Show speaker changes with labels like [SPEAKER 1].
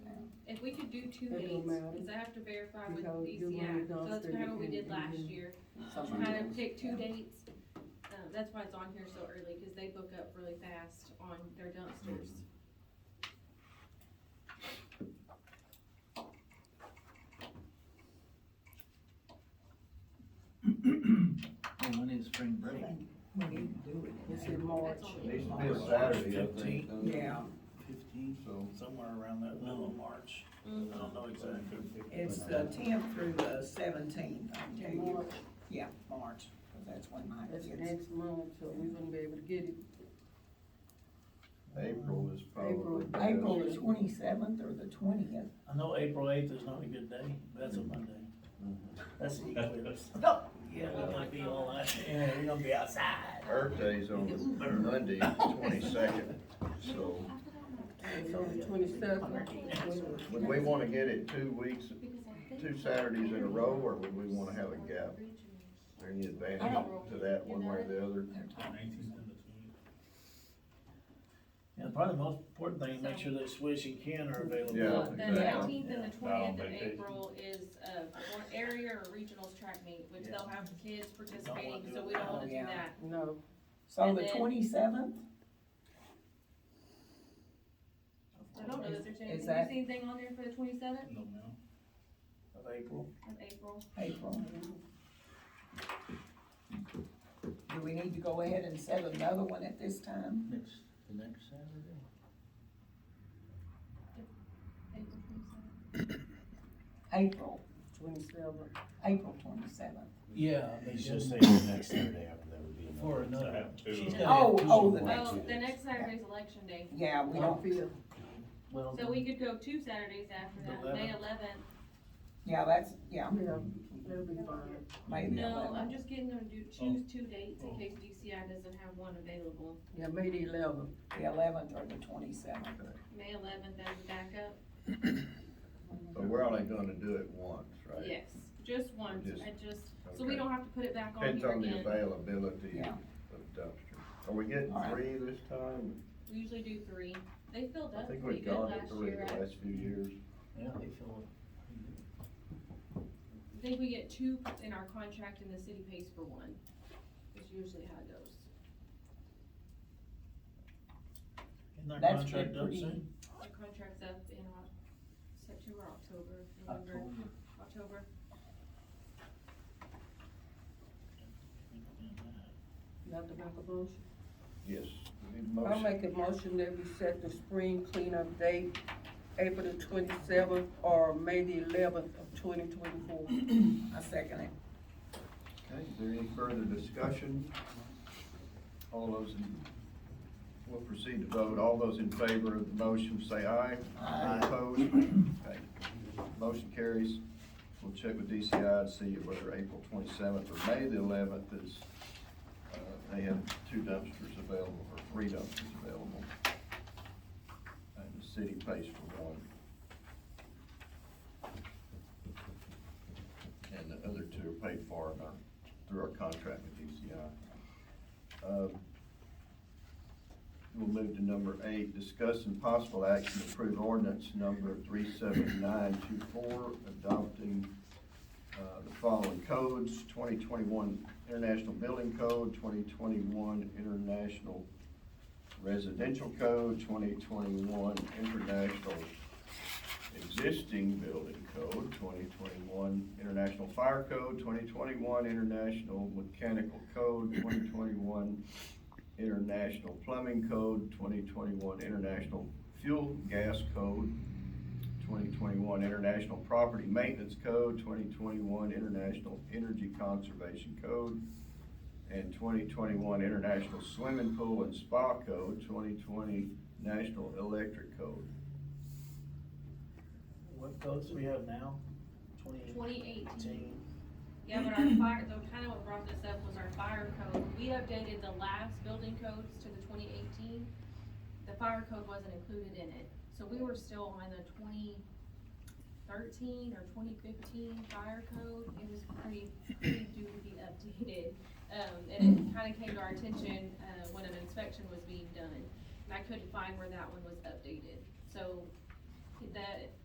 [SPEAKER 1] do two
[SPEAKER 2] It
[SPEAKER 1] dates,
[SPEAKER 2] don't matter.
[SPEAKER 1] cause I have to verify with
[SPEAKER 2] Because you
[SPEAKER 1] DCI,
[SPEAKER 2] wanted
[SPEAKER 1] so that's
[SPEAKER 2] dumpster
[SPEAKER 1] kinda what we
[SPEAKER 2] and-
[SPEAKER 1] did last
[SPEAKER 2] and-
[SPEAKER 1] year.
[SPEAKER 2] Something
[SPEAKER 1] Kind of
[SPEAKER 2] else.
[SPEAKER 1] pick two dates, um, that's why it's on here so early, cause they book up really fast on their dumpsters.
[SPEAKER 3] Oh, when is spring break?
[SPEAKER 4] We need to do it.
[SPEAKER 2] It's in March.
[SPEAKER 1] That's
[SPEAKER 5] It needs to
[SPEAKER 4] on
[SPEAKER 5] be a
[SPEAKER 4] March
[SPEAKER 5] Saturday, I think.
[SPEAKER 6] fifteenth.
[SPEAKER 5] doesn't it?
[SPEAKER 4] Yeah,
[SPEAKER 3] Fifteen,
[SPEAKER 5] So.
[SPEAKER 6] somewhere around that middle of March. I don't know exactly. uh,
[SPEAKER 4] it's the tenth through the seventeenth, I'm telling you,
[SPEAKER 2] March,
[SPEAKER 4] yeah, March, 'cause that's when my
[SPEAKER 2] that's
[SPEAKER 4] kids.
[SPEAKER 2] next month, so we wouldn't be able to get it.
[SPEAKER 5] April is probably. best.
[SPEAKER 4] April the twenty-seventh or the twentieth.
[SPEAKER 6] I know April eighth is not a good day, but that's a Monday. That's the eclipse. Yeah, we might be all out, yeah, we're gonna be outside.
[SPEAKER 5] Earth Day's on Monday, twenty-second, so
[SPEAKER 2] So the twenty-seventh,
[SPEAKER 5] would we wanna get it two weeks, two Saturdays in a row, or would we wanna have a gap? Is there any advantage to that one way or the other?
[SPEAKER 6] Yeah, probably the most important thing, is make sure that Swish and Ken are available.
[SPEAKER 5] Yeah,
[SPEAKER 1] The
[SPEAKER 5] exactly.
[SPEAKER 1] nineteenth and the
[SPEAKER 7] Yeah,
[SPEAKER 1] twentieth of
[SPEAKER 7] vacation.
[SPEAKER 1] April is a one area or regionals track meet, which
[SPEAKER 6] Yeah.
[SPEAKER 1] they'll have the kids participating,
[SPEAKER 6] do
[SPEAKER 1] so
[SPEAKER 6] it.
[SPEAKER 1] we don't wanna do
[SPEAKER 4] Yeah.
[SPEAKER 1] that.
[SPEAKER 2] no,
[SPEAKER 4] So
[SPEAKER 1] And
[SPEAKER 4] the
[SPEAKER 1] then-
[SPEAKER 4] twenty-seventh?
[SPEAKER 1] I don't know, is there
[SPEAKER 4] Is
[SPEAKER 1] anything,
[SPEAKER 4] that-
[SPEAKER 1] anything on there for the twenty-seventh
[SPEAKER 6] No, no. Of April.
[SPEAKER 1] of April?
[SPEAKER 4] April. Do we need to go ahead and set another one at this time?
[SPEAKER 3] next, the next Saturday?
[SPEAKER 1] April 27th?
[SPEAKER 4] April,
[SPEAKER 2] twenty-seventh.
[SPEAKER 4] April twenty-seventh.
[SPEAKER 6] Yeah.
[SPEAKER 7] He's just saying the next Saturday after that would be enough.
[SPEAKER 6] For
[SPEAKER 7] to
[SPEAKER 6] another-
[SPEAKER 7] have two.
[SPEAKER 6] she's gotta-
[SPEAKER 4] Oh,
[SPEAKER 6] Yeah,
[SPEAKER 4] oh, the
[SPEAKER 7] two
[SPEAKER 4] next,
[SPEAKER 1] Well,
[SPEAKER 7] days.
[SPEAKER 1] the next Saturday's election day,
[SPEAKER 4] yeah, we don't,
[SPEAKER 6] Well,
[SPEAKER 1] so we could go two Saturdays after
[SPEAKER 6] The
[SPEAKER 1] that, May
[SPEAKER 6] 11th.
[SPEAKER 1] eleventh.
[SPEAKER 4] yeah, that's, yeah,
[SPEAKER 2] Yeah, that'll be fine.
[SPEAKER 4] maybe
[SPEAKER 1] No,
[SPEAKER 4] eleven.
[SPEAKER 1] I'm just getting them to do- choose two dates in case DCI doesn't have one available.
[SPEAKER 2] Yeah, May the eleventh.
[SPEAKER 4] The eleventh or the twenty-seventh.
[SPEAKER 1] May eleventh as a backup,
[SPEAKER 5] But we're only gonna do it once, right?
[SPEAKER 1] yes, just once,
[SPEAKER 5] Just-
[SPEAKER 1] I just, so we
[SPEAKER 5] okay.
[SPEAKER 1] don't have to put it back on
[SPEAKER 5] Depends
[SPEAKER 1] here
[SPEAKER 5] on the
[SPEAKER 1] again.
[SPEAKER 5] availability
[SPEAKER 4] Yeah.
[SPEAKER 5] of dumpsters. Are we getting
[SPEAKER 4] All right.
[SPEAKER 5] three this time?
[SPEAKER 1] We usually do three. They filled
[SPEAKER 5] I
[SPEAKER 1] up
[SPEAKER 5] think
[SPEAKER 1] pretty
[SPEAKER 5] we've
[SPEAKER 1] good
[SPEAKER 5] gone to
[SPEAKER 1] last
[SPEAKER 5] three
[SPEAKER 1] year.
[SPEAKER 5] the
[SPEAKER 1] I
[SPEAKER 5] last few years.
[SPEAKER 6] yeah, they feel.
[SPEAKER 1] think we get two in our contract and the city pays for one. That's usually how it goes.
[SPEAKER 6] Isn't their
[SPEAKER 4] That's
[SPEAKER 6] contract up
[SPEAKER 4] pretty-
[SPEAKER 6] soon?
[SPEAKER 1] Our contract's up in uh, September, October, November, October.
[SPEAKER 2] You have to make a motion.
[SPEAKER 5] Yes.
[SPEAKER 2] I'll
[SPEAKER 5] Motion.
[SPEAKER 2] make a motion that we set the spring cleanup date, April the twenty-seventh or May the eleventh of twenty twenty-four.
[SPEAKER 4] I second it.
[SPEAKER 5] Okay, is there any further discussion? All those in, we'll proceed to vote. All those in favor of the motion, say aye. Aye. Opposed? Okay. Motion carries. We'll check with DCI to see whether April twenty-seventh or May the eleventh is, uh, they have two dumpsters available, or three dumpsters available. And the city pays for one. And the other two are paid for in our, through our contract with DCI. Um, We'll move to number eight, discuss and possible action to approve ordinance number three seven nine two four, adopting, uh, the following codes, twenty twenty-one International Building Code, twenty twenty-one International Residential Code, twenty twenty-one International existing building code, twenty twenty-one International Fire Code, twenty twenty-one International Mechanical Code, twenty twenty-one International Plumbing Code, twenty twenty-one International Fuel Gas Code, twenty twenty-one International Property Maintenance Code, twenty twenty-one International Energy Conservation Code, and twenty twenty-one International Swimming Pool and Spa Code, twenty twenty National Electric Code.
[SPEAKER 6] What codes do we have now? Twenty
[SPEAKER 1] Twenty eighteen.
[SPEAKER 6] eighteen?
[SPEAKER 1] Yeah, but our fire, the kind of what brought this up was our fire code. We updated the last building codes to the twenty eighteen. The fire code wasn't included in it, so we were still on the twenty thirteen or twenty fifteen fire code. It was pretty, pretty due to be updated. Um, and it kinda came to our attention, uh, when an inspection was being done, and I couldn't find where that one was updated. So that,